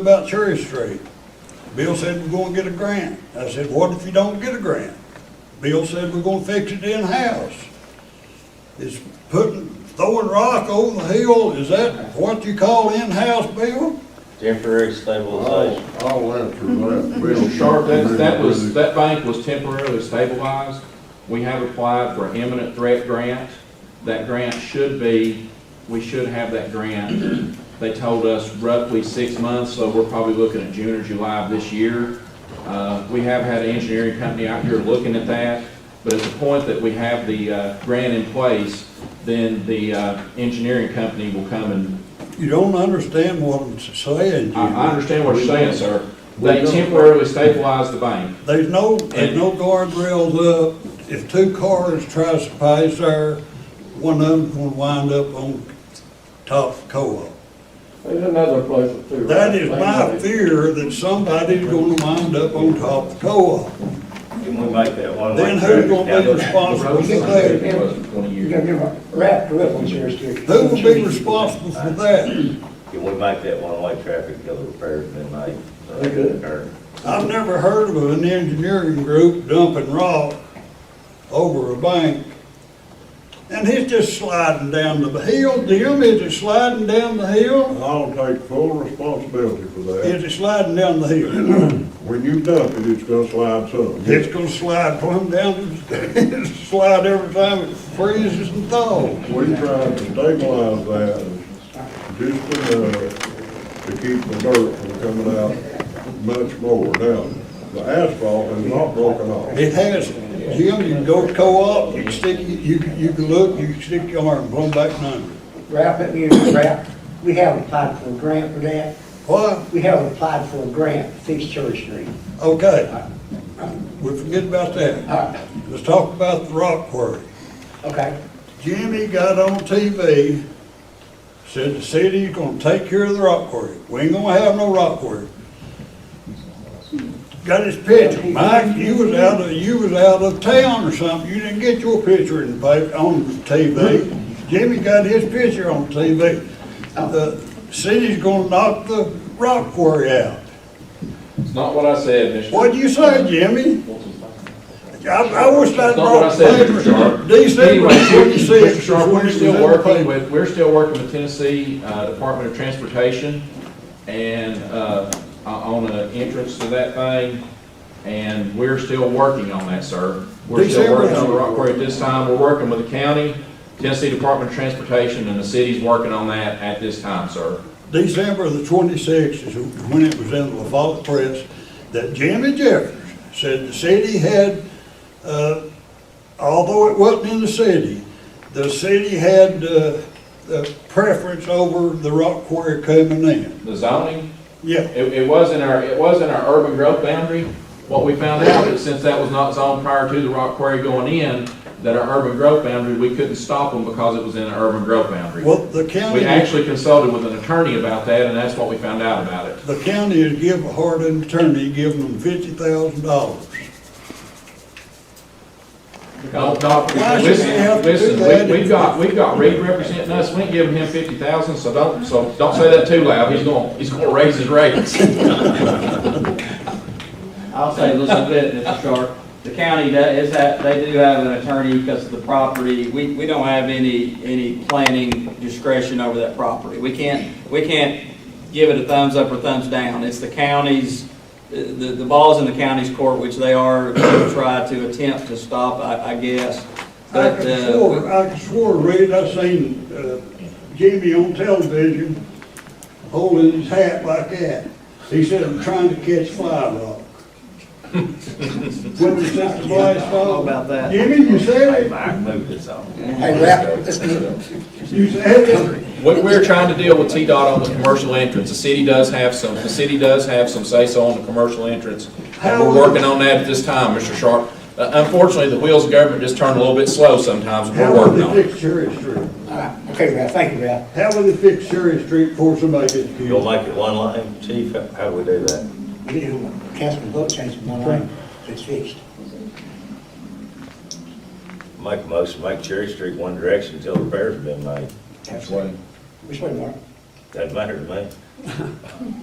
about Cherry Street. Bill said we're gonna get a grant. I said, what if you don't get a grant? Bill said we're gonna fix it in-house. It's putting, throwing rock over the hill, is that what you call in-house, Bill? Temporary All, stabilization. all answers left. Mr. Sharp, that, that was, that bank was temporarily stabilized. We have applied for an imminent threat grant. That grant should be, we should have that grant. They told us roughly six months, so we're probably looking at June or July of this year. Uh, we have had an engineering company out here looking at that, but at the point that we have the, uh, grant in place, then the, uh, engineering company will come and, You don't understand what I'm saying, I, I Jimmy. understand what you're saying, sir. They temporarily stabilized the bank. There's no, there's no guardrails up. If two cars tries to pass there, one of them's gonna wind up on top of co-op. There's another place or two. That is my fear, that somebody's gonna wind up on top of the co-op. Oh. Can we make that one Then way? who's gonna be traffic? responsible for that? Twenty You're years. gonna give a rap to it on Cherry Street. Who will be responsible for that? Can we make that one-way traffic go repairs been made? We could. Or- I've never heard of an engineering group dumping rock over a bank. And it's just sliding down the hill, Jim, is it sliding down the hill? I'll take full responsibility for that. Is it sliding down the hill? When you dump it, it's gonna slide some. It's gonna slide plumb down, slide every time it freezes and thaws. We tried to stabilize that just enough to keep the dirt from coming out much more. Now, the asphalt has not broken off. It has, Jim, you can go to co-op, you can stick, you can, you can look, you can stick your arm, blown back and under. Rap it, you know, rap. We have applied for a grant for that. What? We have applied for a grant to fix Cherry Street. Okay. We forget about that. All right, Let's talk about the rock quarry. okay. Jimmy got on TV, said the city's gonna take care of the rock quarry. We ain't gonna have no rock quarry. Got his picture. Mike, you was out of, you was out of town or something. You didn't get your picture in the paper, on TV. Jimmy got his picture on TV. The city's gonna knock the rock quarry out. It's not what I said, Mr. What'd you say, Jimmy? I, I wish I'd That's not what I brought said, papers. Mr. Sharp. DC, Anyway, was what you said. Mr. Sharp, What we're you still said. working with, we're still working with Tennessee uh, Department of Transportation and, uh, on an entrance to that thing, and we're still working on that, sir. We're still December. working on the rock quarry at this time, we're working with the county, Tennessee Department of Transportation, and the city's working on that at this time, sir. December the twenty-sixth is when it was in the Lafayette Press, that Jimmy Jeffers said the city had, uh, although it wasn't in the city, the city had, uh, the preference over the rock quarry coming in. The zoning, Yeah, It, it was in our, it was in our urban growth boundary. What we found out is since that was not zoned prior to the rock quarry going in, that our urban growth boundary, we couldn't stop them because it was in our urban growth boundary. well, the county. We actually consulted with an attorney about that, and that's what we found out about it. The county has give Hardin attorney, giving them fifty thousand dollars. Don't, don't, Why should we have listen, to do that? listen, we, we've got, we've got Reed representing us, we ain't giving him fifty thousand, so don't, so don't say that too loud, he's gonna, he's gonna raise his rates. I'll say just a bit, Mr. Sharp. The county does, is that, they do have an attorney because of the property. We, we don't have any, any planning discretion over that property. We can't, we can't give it a thumbs up or thumbs down. It's the county's, the, the ball's in the county's court, which they are, to try to attempt to stop, I, I I guess. But, could uh, swore, I could swore, Red, I seen, uh, Jimmy on television holding his hat like that. He said, I'm trying to catch fly rock. When we sent the flies I don't know off. about that. Jimmy, you said Hey, it, Mike, move this on. Hey, rap, let's get it. you said it. We, we're trying to deal with T-Dot on the commercial entrance. The city does have some, the city does have some say-so on the commercial entrance. And we're working on that at this time, Mr. Sharp. Uh, Unfortunately, the wheels of government just turn a little bit slow sometimes, and How we're will working they on it. fix Cherry Street? All right, okay, Rap, thank you, Rap. How will they fix Cherry Street before somebody gets You'll killed? make it one lane, chief, how- how do we do that? We did a councilman vote change from one lane, it's fixed. Make a motion, make Cherry Street one direction until repairs have been made. Which way, Mark? Doesn't matter to me.